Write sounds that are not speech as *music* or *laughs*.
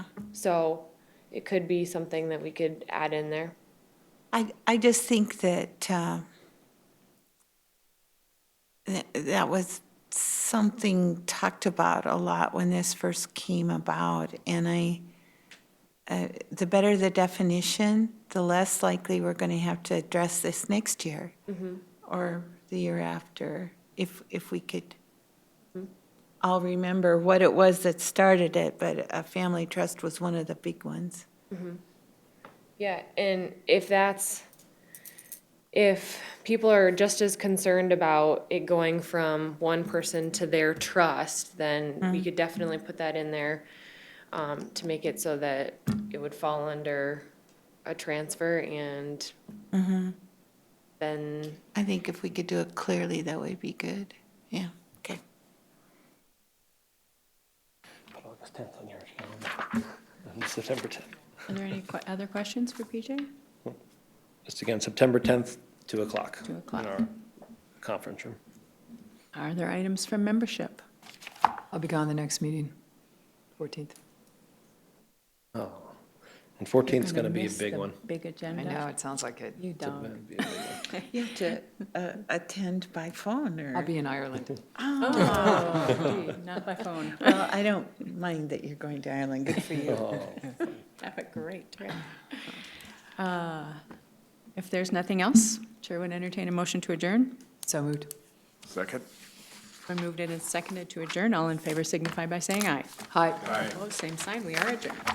So it could be something that we could add in there. I, I just think that, uh, that, that was something talked about a lot when this first came about, and I, uh, the better the definition, the less likely we're gonna have to address this next year or the year after, if, if we could all remember what it was that started it, but a family trust was one of the big ones. Yeah, and if that's, if people are just as concerned about it going from one person to their trust, then we could definitely put that in there um, to make it so that it would fall under a transfer and Mm-hmm. then, I think if we could do it clearly, that would be good. Yeah, okay. Put August 10th on your calendar, *laughs* and September 10th. Are there any que- other questions for PJ? Just again, September 10th, 2 o'clock. 2 o'clock. In our conference room. Are there items from membership? I'll be gone the next meeting, 14th. Oh, and 14th is Gonna going to be a miss big the one. Big I agenda. know, it sounds like it. uh, You It's gonna don't. be a big one. You have to uh, attend by phone I'll or? be in Ireland. Oh, Not by phone. Well, I don't mind that you're going to Ireland, good for you. Have a great trip. Uh, If there's nothing else, Chair would entertain a motion to adjourn. So moved. Second? We moved it and seconded to adjourn. All in favor signify by saying aye. Hi. Opposed, same sign. We are adjourned.